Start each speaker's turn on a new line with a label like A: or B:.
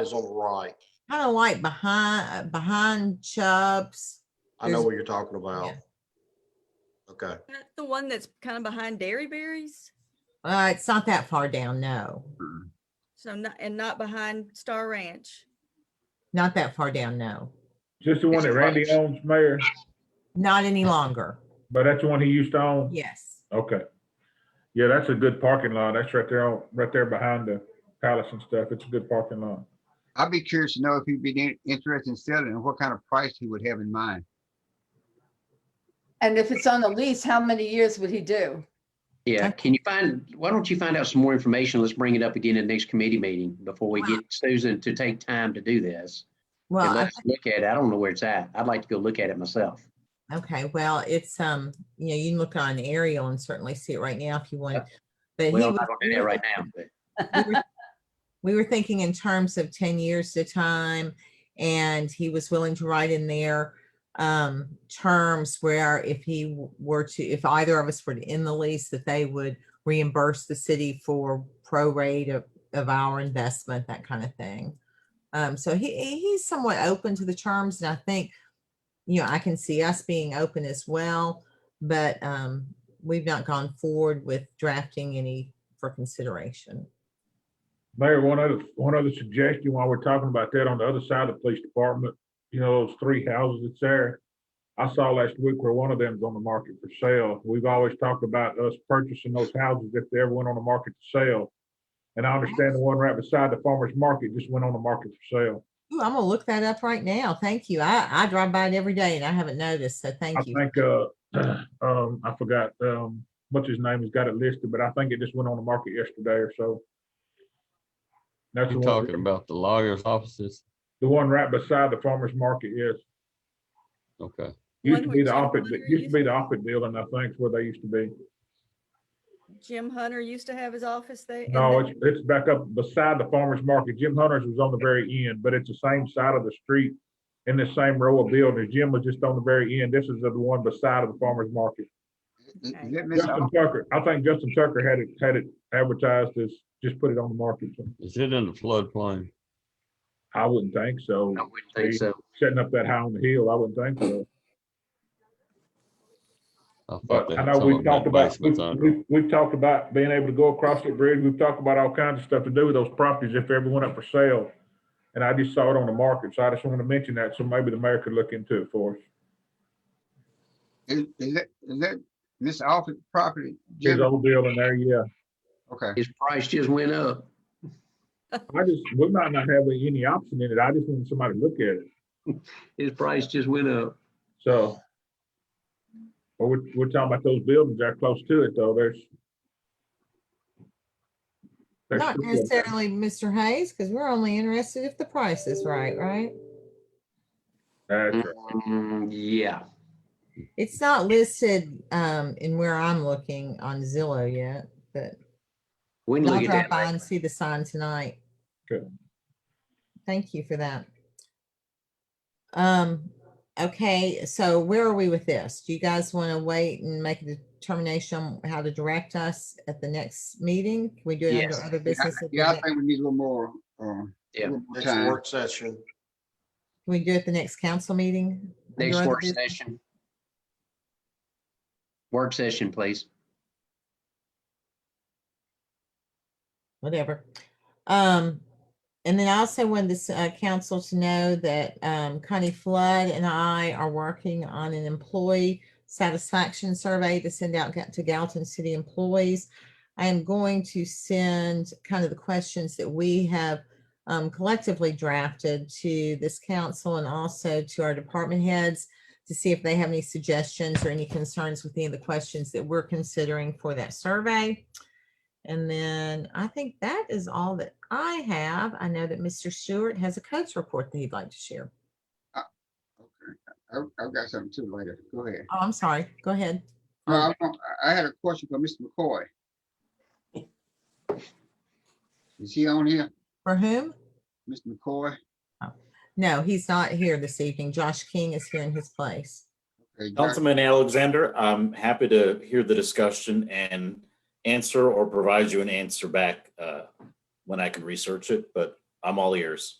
A: is on the right.
B: kind of like behind, behind Chubbs.
A: I know
B: There's-
A: what you're talking about. Okay,
C: That the one that's kind of behind Dairy Berries?
B: Uh, it's not that far down, no,
C: So not, and not behind Star Ranch.
B: not that far down, no,
D: Just the one
A: It's
D: that Randy
A: close.
D: owns, Mayor,
B: not any longer.
D: but that's the one he used to own?
B: Yes,
D: Okay. Yeah, that's a good parking lot. That's right there, on- right there behind the palace and stuff. It's a good parking lot.
E: I'd be curious to know if he'd be in- interested in selling and what kind of price he would have in mind.
F: And if it's on the lease, how many years would he do?
G: Yeah,
B: Okay.
G: can you find, why don't you find out some more information? Let's bring it up again in the next committee meeting before we get Susan to take time to do this.
B: well,
G: And
B: I-
G: let's look at it. I don't know where it's at. I'd like to go look at it myself.
B: okay, well, it's, um, you know, you can look on an aerial and certainly see it right now if you want. But he
G: Well, I
B: was-
G: don't do that right now, but
B: we were- we were thinking in terms of ten years to time, and he was willing to write in there um, terms where if he w- were to, if either of us were to end the lease, that they would reimburse the city for prorate of, of our investment, that kind of thing. Um, so he, he- he's somewhat open to the terms, and I think, you know, I can see us being open as well, but um, we've not gone forward with drafting any for consideration.
D: Mayor, one other, one other suggestion while we're talking about that, on the other side of the police department, you know, those three houses that's there. I saw last week where one of them's on the market for sale. We've always talked about us purchasing those houses if they ever went on the market to sell. And I understand the one right beside the farmer's market just went on the market for sale.
B: Ooh, I'm gonna look that up right now. Thank you. I, I drive by it every day and I haven't noticed, so
D: I
B: thank you.
D: think, uh, um, I forgot, um, what's his name, he's got it listed, but I think it just went on the market yesterday or so. That's the
H: You
D: one,
H: talking about the lawyer's offices?
D: the one right beside the farmer's market, yes.
H: Okay.
D: Used
C: One
D: to
C: where
D: be the
C: Jim
D: Oppet,
C: Hunter
D: used to be the Oppet building, I think, is where they used to be.
C: Jim Hunter used to have his office there. and
D: No,
C: then-
D: it's, it's back up beside the farmer's market. Jim Hunter's was on the very end, but it's the same side of the street in the same row of buildings. Jim was just on the very end. This is the one beside of the farmer's market.
E: Is
C: Okay.
E: that Miss
D: Justin Tucker, I think Justin Tucker had it, had it advertised as, just put it on the market.
H: Is it in the floodplain?
D: I wouldn't think so.
G: I wouldn't think so.
D: Setting up that high on the hill, I wouldn't think so.
H: thought
D: But
H: they
D: I
H: had
D: know
H: some
D: we've
H: of 'em had
D: talked about, we've,
H: basements under 'em.
D: we've- we've talked about being able to go across the bridge. We've talked about all kinds of stuff to do with those properties if they ever went up for sale. And I just saw it on the market, so I just wanted to mention that, so maybe the mayor could look into it for us.
E: is is that, is that Miss Office property?
D: His
E: Jim?
D: old deal in there, yeah.
E: Okay,
G: His price just went up.
D: I just, we might not have any option in it. I just wanted somebody to look at it,
G: His price just went up.
D: so. But we're, we're talking about those buildings that are close to it, though. There's. there's
B: Not
D: two of them.
B: necessarily Mr. Hayes, because we're only interested if the price is right, right?
D: That's right.
G: Mm, Yeah,
B: It's not listed, um, in where I'm looking on Zillow yet, but
G: we can
B: I'll
G: look
B: drive
G: at
B: by and
G: that.
B: see the sign tonight.
D: Good.
B: Thank you for that. Um, okay, so where are we with this? Do you guys want to wait and make a determination on how to direct us at the next meeting? Can we do it
G: Yes.
B: under other
E: Yeah,
B: business? at the
E: yeah, I
B: next-
E: think we need a little more, uh,
G: Yeah.
E: little more
A: next
E: time.
A: work session.
B: Can we do it the next council meeting? under
G: Next
B: other
G: work
B: business?
G: session. Work session, please.
B: whatever. Um, and then I also wanted this uh, council to know that um, Connie Flood and I are working on an employee satisfaction survey to send out ga- to Galton City employees. I am going to send kind of the questions that we have um, collectively drafted to this council and also to our department heads to see if they have any suggestions or any concerns with any of the questions that we're considering for that survey. And then I think that is all that I have. I know that Mr. Stewart has a coach report that he'd like to share.
E: I've, I've got something too later. Go ahead.
B: Oh, I'm sorry. Go ahead.
E: Uh, I want- I had a question for Mr. McCoy. Is he on here,
B: For whom?
E: Mr. McCoy?
B: No, he's not here this evening. Josh King is here in his place.
E: Okay, Josh.
I: Councilman Alexander, I'm happy to hear the discussion and answer or provide you an answer back uh, when I can research it, but I'm all ears.